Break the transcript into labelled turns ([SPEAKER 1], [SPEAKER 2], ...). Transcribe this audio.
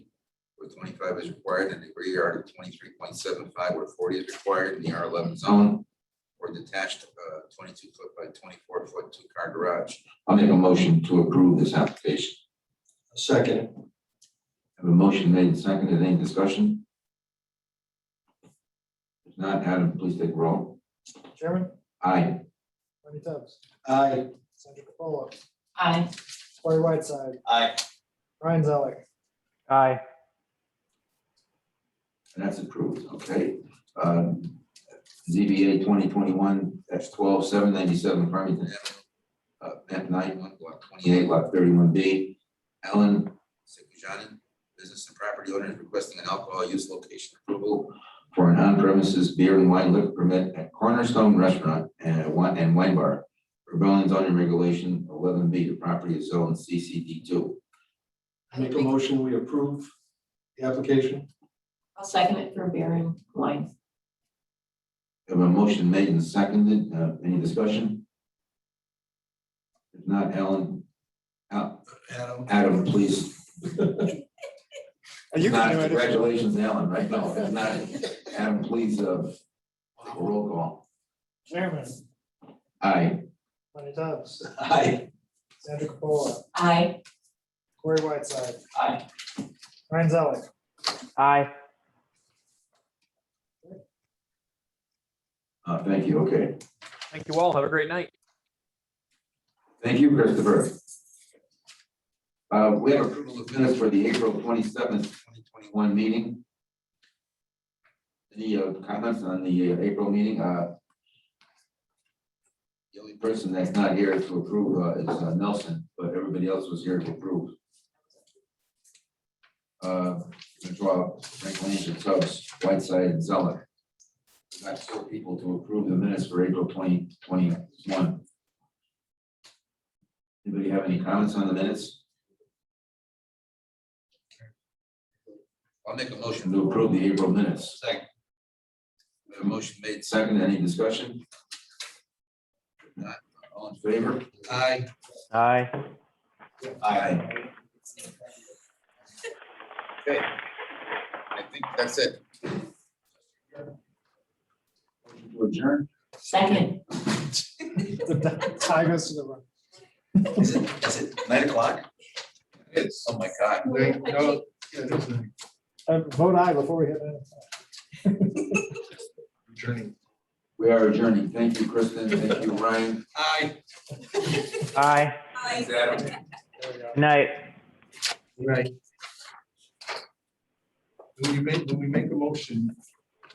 [SPEAKER 1] where twenty-five is required and the rear yard of twenty-three point seven five where forty is required in the R eleven zone or detached uh, twenty-two foot by twenty-four foot two-car garage. I'll make a motion to approve this application.
[SPEAKER 2] Second.
[SPEAKER 1] Have a motion made and seconded. Any discussion? If not, Adam, please take roll.
[SPEAKER 3] Chairman,
[SPEAKER 1] Aye.
[SPEAKER 3] Bernie Tubbs,
[SPEAKER 2] Aye.
[SPEAKER 3] Sandra Capola,
[SPEAKER 4] Aye.
[SPEAKER 3] Corey Whiteside,
[SPEAKER 2] Aye.
[SPEAKER 3] Ryan Zeller.
[SPEAKER 5] aye,
[SPEAKER 1] And that's approved, okay. Um, ZBA twenty twenty-one, that's twelve, seven ninety-seven Farmington Avenue. Uh, map nine, one, block twenty-eight, lot thirty-one B. Alan Sekujani, business and property owner, is requesting an alcohol use location approval for an on-premises beer and wine liquor permit at Cornerstone Restaurant and Wine, and Wine Bar. Rebellion zoning regulation eleven B, the property is zoned CCD two.
[SPEAKER 2] Make a motion, we approve the application.
[SPEAKER 4] I'll second it for Baron Wine.
[SPEAKER 1] Have a motion made and seconded, uh, any discussion? If not, Alan, Al-
[SPEAKER 2] Adam.
[SPEAKER 1] Adam, please.
[SPEAKER 3] You
[SPEAKER 1] Not- Congratulations, Alan, right? No, if not, Adam, please, uh, take a roll call.
[SPEAKER 3] Chairman,
[SPEAKER 1] Aye,
[SPEAKER 3] Bernie Tubbs,
[SPEAKER 2] Aye.
[SPEAKER 3] Sandra Capola,
[SPEAKER 4] Aye.
[SPEAKER 3] Corey Whiteside,
[SPEAKER 2] Aye.
[SPEAKER 3] Ryan Zeller.
[SPEAKER 5] aye.
[SPEAKER 1] uh, thank you, okay.
[SPEAKER 5] Thank you all. Have a great night.
[SPEAKER 1] Thank you, Christopher. Uh, we have approval of minutes for the April twenty-seventh, twenty twenty-one meeting. Any uh, comments on the uh, April meeting? Uh, The only person that's not here to approve uh, is uh, Nelson, but everybody else was here to approve. Uh, Withdraw, Franklin, and Tubbs, Whiteside, and Zeller. We Got four people to approve the minutes for April twenty twenty-one. Anybody have any comments on the minutes?
[SPEAKER 6] I'll make a motion.
[SPEAKER 1] To approve the April minutes.
[SPEAKER 6] Second.
[SPEAKER 1] We have A motion made second, any discussion? Not all in favor?
[SPEAKER 6] Aye.
[SPEAKER 5] Aye.
[SPEAKER 1] Aye.
[SPEAKER 6] I think that's it.
[SPEAKER 1] Motion to adjourn?
[SPEAKER 4] Second.
[SPEAKER 3] Tie goes to the run.
[SPEAKER 6] Is it, is it nine o'clock? It is. Oh, my God.
[SPEAKER 2] No, yeah, there's a
[SPEAKER 3] Uh, Vote aye before we hit that.
[SPEAKER 2] Journey.
[SPEAKER 1] We are adjourning. Thank you, Kristen. Thank you, Ryan.
[SPEAKER 6] Aye.
[SPEAKER 5] Aye.
[SPEAKER 4] Aye.
[SPEAKER 1] Adam.
[SPEAKER 3] There we go.
[SPEAKER 5] Good Night.
[SPEAKER 2] Right. When we make, when we make a motion,